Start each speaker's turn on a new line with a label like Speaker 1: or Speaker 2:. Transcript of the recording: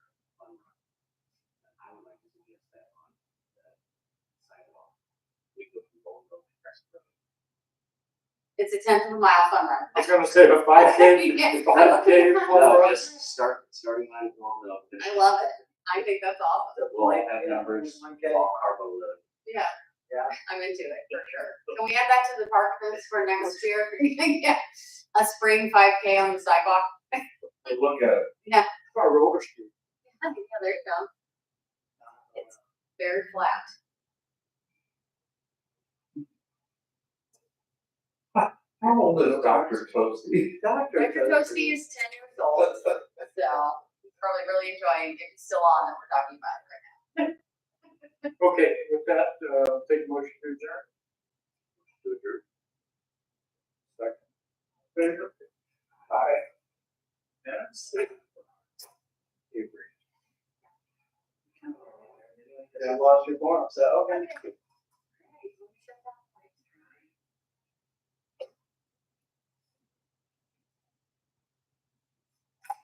Speaker 1: that on the sidewalk. We could be going over the crest of the road.
Speaker 2: It's a tenth of a mile fun run.
Speaker 3: I was gonna say, the five K,
Speaker 2: Yeah.
Speaker 3: the five K.
Speaker 1: No, just start, starting line along the.
Speaker 2: I love it. I think that's awesome.
Speaker 1: The will have numbers,
Speaker 3: One K.
Speaker 1: all carbo load.
Speaker 2: Yeah.
Speaker 3: Yeah.
Speaker 2: I'm into it for sure. Can we add that to the park list for next year? Yeah. A spring five K on the sidewalk.
Speaker 3: They look at.
Speaker 2: Yeah.
Speaker 3: Our roller street.
Speaker 2: Yeah, there you go. It's very flat.
Speaker 3: How old is Dr. Toasty?
Speaker 2: Dr. Toasty is ten years old, so he's probably really enjoying if he's still on that we're talking about it right now.
Speaker 3: Okay, with that, uh, take motion to adjourn. To adjourn. Second. Favor? Aye. Yes. Avery. Yeah, I lost your form, so, okay.